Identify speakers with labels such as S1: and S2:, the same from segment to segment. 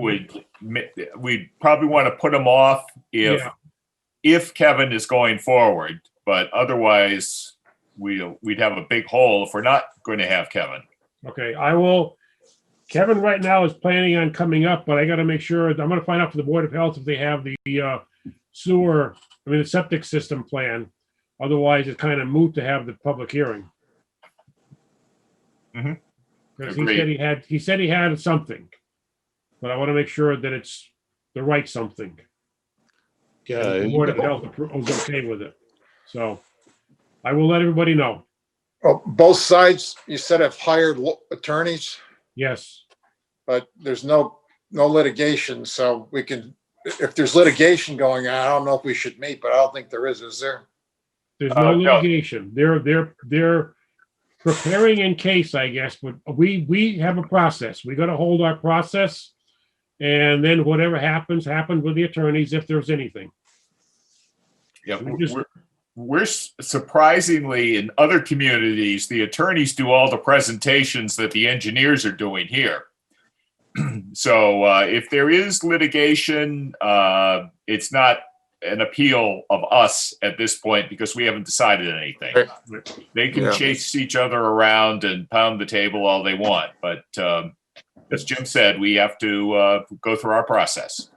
S1: would, ma- we'd probably want to put them off if,
S2: Yeah.
S1: if Kevin is going forward, but otherwise, we'll, we'd have a big hole if we're not going to have Kevin.
S2: Okay, I will, Kevin right now is planning on coming up, but I gotta make sure, I'm gonna find out for the Board of Health if they have the uh, sewer, I mean, the septic system plan. Otherwise, it's kind of moot to have the public hearing.
S1: Mhm.
S2: Because he
S1: Agreed.
S2: said he had, he said he had something. But I want to make sure that it's the right something.
S3: Yeah,
S2: and The Board of Health appro- was okay with it. So I will let everybody know.
S4: Well, both sides, you said have hired lo- attorneys,
S2: Yes,
S4: but there's no, no litigation, so we can, if there's litigation going on, I don't know if we should meet, but I don't think there is, is there?
S2: there's no
S1: Uh, no.
S2: litigation. They're, they're, they're preparing in case, I guess, but we, we have a process. We gotta hold our process. And then whatever happens, happens with the attorneys if there's anything.
S1: Yeah,
S2: We just-
S1: we're, we're s- surprisingly, in other communities, the attorneys do all the presentations that the engineers are doing here. So uh, if there is litigation, uh, it's not an appeal of us at this point because we haven't decided anything.
S4: Right.
S1: They can
S4: Yeah.
S1: chase each other around and pound the table all they want, but um, as Jim said, we have to uh, go through our process.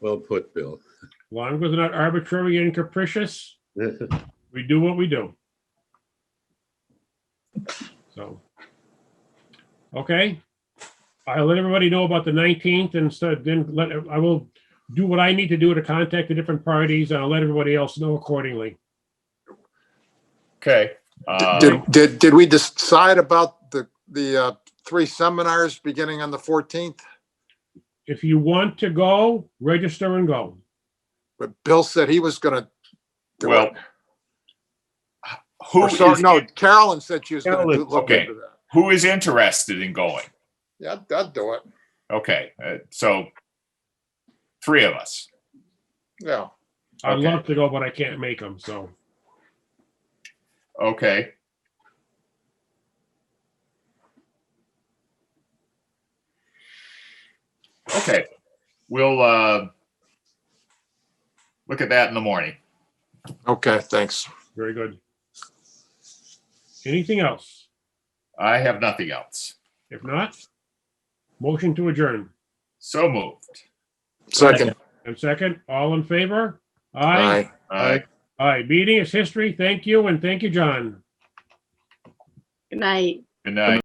S3: well put, Bill.
S2: As long as they're not arbitrary and capricious, we do what we do. So. Okay. I'll let everybody know about the nineteenth and so then let, I will do what I need to do to contact the different parties and I'll let everybody else know accordingly.
S1: Okay. Uh,
S4: Did, did, did we decide about the, the, uh, three seminars beginning on the fourteenth?
S2: If you want to go, register and go.
S4: But Bill said he was gonna do
S1: Well,
S4: it.
S1: who
S4: Or so-
S1: is,
S4: no, Carolyn said she was gonna do-
S2: Carolyn,
S4: look
S1: okay.
S4: into that.
S1: who is interested in going?
S4: Yeah, I'd- I'd do it,
S1: Okay, uh, so three of us.
S4: yeah.
S2: I'd
S1: Okay.
S2: love to go, but I can't make them, so.
S1: Okay. Okay, we'll uh, look at that in the morning.
S4: Okay, thanks.
S2: Very good. Anything else?
S1: I have nothing else.
S2: If not, motion to adjourn.
S1: So moved.
S4: Second,
S2: And second, all in favor?
S4: aye.
S1: Aye.
S2: Aye. Meeting is history. Thank you, and thank you, John.
S5: Good night.
S1: Good night.